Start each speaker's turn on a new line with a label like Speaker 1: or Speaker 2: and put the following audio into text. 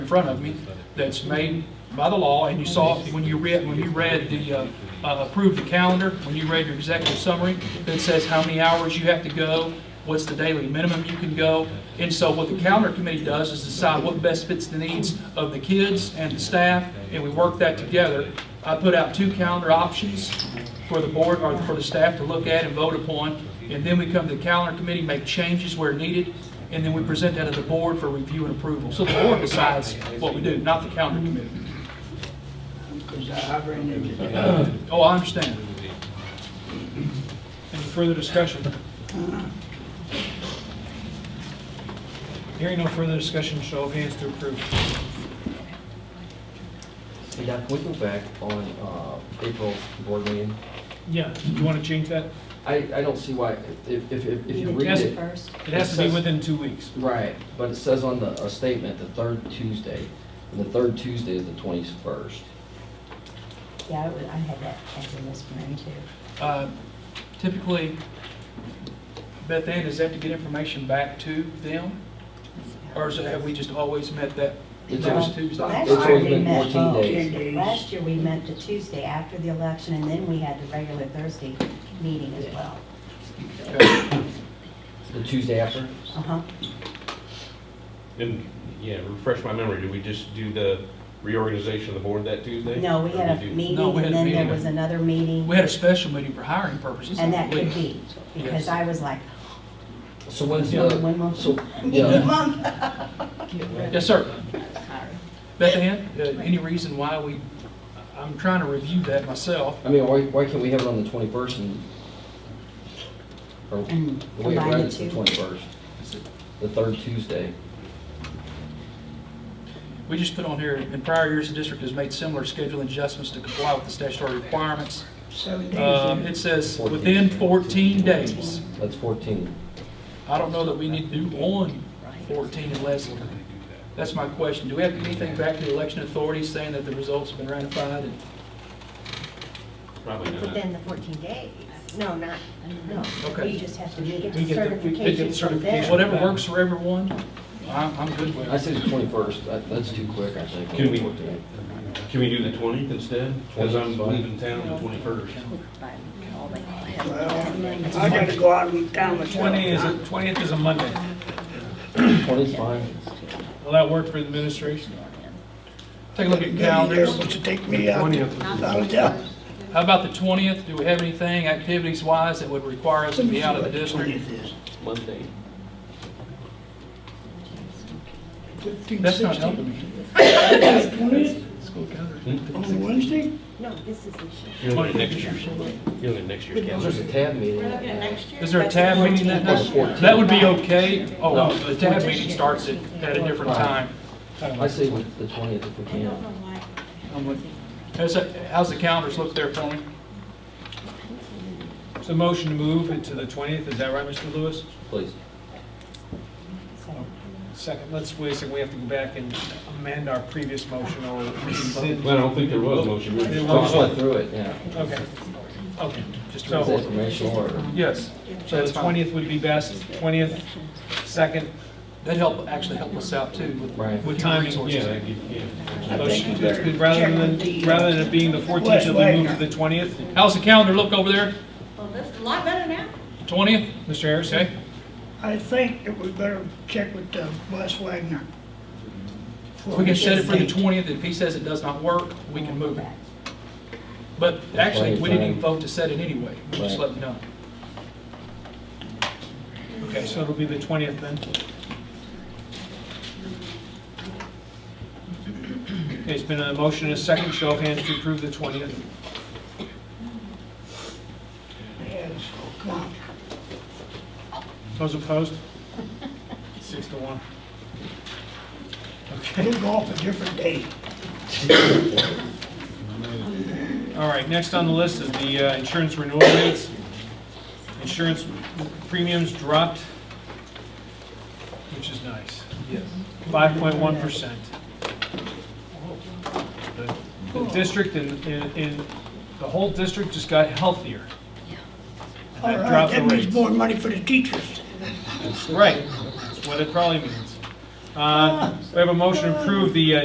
Speaker 1: front of me that's made by the law, and you saw it when you read, when you read the, uh, uh, approved the calendar, when you read your executive summary, that says how many hours you have to go, what's the daily minimum you can go. And so what the calendar committee does is decide what best fits the needs of the kids and the staff, and we work that together. I put out two calendar options for the board, or for the staff to look at and vote upon, and then we come to the calendar committee, make changes where needed, and then we present that to the board for review and approval. So the board decides what we do, not the calendar committee.
Speaker 2: Because I I ran into that.
Speaker 1: Oh, I understand.
Speaker 3: Any further discussion? Hearing no further discussion, show of hands to approve.
Speaker 4: Hey, Doc, can we go back on uh, April's board meeting?
Speaker 3: Yeah, you want to change that?
Speaker 4: I, I don't see why, if, if, if you read
Speaker 3: Yes.
Speaker 4: it,
Speaker 5: first.
Speaker 3: It has to be within two weeks.
Speaker 4: right, but it says on the, a statement, the third Tuesday, and the third Tuesday is the twenty-first.
Speaker 5: Yeah, I would- I had that as a misprint too.
Speaker 1: Uh, Typically, Beth Ann, is that to get information back to them? Or is it, have we just always met that
Speaker 4: It's
Speaker 1: those
Speaker 4: always-
Speaker 1: Tuesdays?
Speaker 5: Um, Last
Speaker 4: It's
Speaker 5: year
Speaker 4: always
Speaker 5: we
Speaker 4: been
Speaker 5: met
Speaker 4: 14
Speaker 5: both.
Speaker 4: days.
Speaker 2: Ten days.
Speaker 5: Last year we met the Tuesday after the election and then we had the regular Thursday meeting as well.
Speaker 1: Okay.
Speaker 4: The Tuesday after?
Speaker 5: Uh-huh.
Speaker 6: And, yeah, refresh my memory, did we just do the reorganization of the board that Tuesday?
Speaker 5: No, we had
Speaker 6: Or
Speaker 5: a
Speaker 6: did you-
Speaker 5: meeting
Speaker 1: No, we had
Speaker 5: and
Speaker 1: a
Speaker 5: then there
Speaker 1: meeting.
Speaker 5: was another meeting
Speaker 1: We had a special meeting for hiring purposes. I
Speaker 5: and that could
Speaker 1: believe.
Speaker 5: be, because
Speaker 1: Yes.
Speaker 5: I was like,
Speaker 4: So when's
Speaker 5: Yeah.
Speaker 4: the,
Speaker 5: One month.
Speaker 4: so,
Speaker 5: need a
Speaker 4: yeah,
Speaker 5: month.
Speaker 1: Yes, sir. Beth Ann, uh, any reason why we, I'm trying to review that myself.
Speaker 4: I mean, why, why can't we have it on the twenty-first and? Or,
Speaker 5: And
Speaker 4: the way it
Speaker 5: combine
Speaker 4: read
Speaker 5: the
Speaker 4: it's the
Speaker 5: two.
Speaker 4: twenty-first, the third Tuesday.
Speaker 1: We just put on here, in prior years, the district has made similar scheduling adjustments to comply with the statutory requirements.
Speaker 2: Seven days.
Speaker 1: Um, It says within 14 days.
Speaker 4: That's fourteen.
Speaker 1: I don't know that we need to do on 14 unless, that's my question. Do we have to do anything back to the election authorities saying that the results have been ratified? And-
Speaker 6: Probably not.
Speaker 7: Within the 14 days. No, not, no.
Speaker 1: Okay.
Speaker 7: You just have to get
Speaker 3: We
Speaker 7: the
Speaker 3: get the- we get the
Speaker 7: certification from
Speaker 3: certification.
Speaker 7: them.
Speaker 1: Whatever works for everyone, I'm I'm good with
Speaker 4: I
Speaker 1: it.
Speaker 4: say the twenty-first, that, that's too quick, I think.
Speaker 6: Can we-
Speaker 4: 14.
Speaker 6: Can we do the twentieth instead? Because
Speaker 4: 20th
Speaker 6: I'm
Speaker 4: is fine.
Speaker 6: leaving town the twenty-first.
Speaker 2: Well, I gotta go out and town myself.
Speaker 3: Twenty is, a- twentieth is a Monday.
Speaker 4: Twenty's fine.
Speaker 3: Will that work for the administration?
Speaker 1: Take a look at
Speaker 2: Maybe
Speaker 1: calendars.
Speaker 2: they're able to take me out to out of town.
Speaker 1: How about the 20th? Do we have anything activities-wise that would require us to be out of the district?
Speaker 4: Monday.
Speaker 1: That's not helping me.
Speaker 2: On Wednesday?
Speaker 7: No, this is the shit.
Speaker 6: You're looking at next year's, you're looking at next year's
Speaker 4: There's
Speaker 6: calendar.
Speaker 4: a tab meeting. that night.
Speaker 1: Is there a tab meeting that
Speaker 4: That's the
Speaker 1: night?
Speaker 4: 14th.
Speaker 1: That would be okay. Oh, well, the tab meeting starts at, at a different time.
Speaker 4: I say with the twentieth if we can.
Speaker 1: I'm with- How's, that- how's the calendars look there, Tony?
Speaker 3: So motion to move it to the twentieth, is that right, Mr. Lewis?
Speaker 4: Please.
Speaker 3: Second, let's wait a second, we have to go back and amend our previous motion or rescind.
Speaker 6: Well, I don't think there was a motion. We were just
Speaker 3: There
Speaker 4: I just went
Speaker 6: talking.
Speaker 4: through it, yeah.
Speaker 3: Okay, okay, just
Speaker 4: It's
Speaker 3: so,
Speaker 4: informational or,
Speaker 1: Yes.
Speaker 3: so the twentieth would be best, twentieth, second,
Speaker 1: That'd help, actually help us out too with.
Speaker 4: Right.
Speaker 3: with timing.
Speaker 6: Yeah, that could- yeah.
Speaker 3: Motion, that's good. Rather than, rather than it being the 14th, it'll be moved to the 20th.
Speaker 1: How's the calendar look over there?
Speaker 7: Well, that's a lot better now.
Speaker 1: 20th?
Speaker 3: Mr. Harris?
Speaker 1: Okay.
Speaker 2: I think that we better check with uh, Wes Wagner.
Speaker 1: We can set it for the 20th. If he says it does not work, we can move it. But actually, we didn't even vote to set it anyway. We Just let me know.
Speaker 3: Okay, so it'll be the 20th then. Okay, it's been a motion and a second, show of hands to approve the 20th.
Speaker 2: Yes, come on.
Speaker 3: Those opposed? Six to one. Okay.
Speaker 2: We'll go off a different day.
Speaker 3: All right, next on the list is the uh, insurance renewal rates. Insurance premiums dropped, which is nice. Yes. Five point one percent. The district and, and and the whole district just got healthier. And
Speaker 2: All
Speaker 3: that
Speaker 2: right,
Speaker 3: dropped the
Speaker 2: that means
Speaker 3: rates.
Speaker 2: more money for the teachers.
Speaker 3: Right, that's what it probably means. Uh, We have a motion to approve the uh,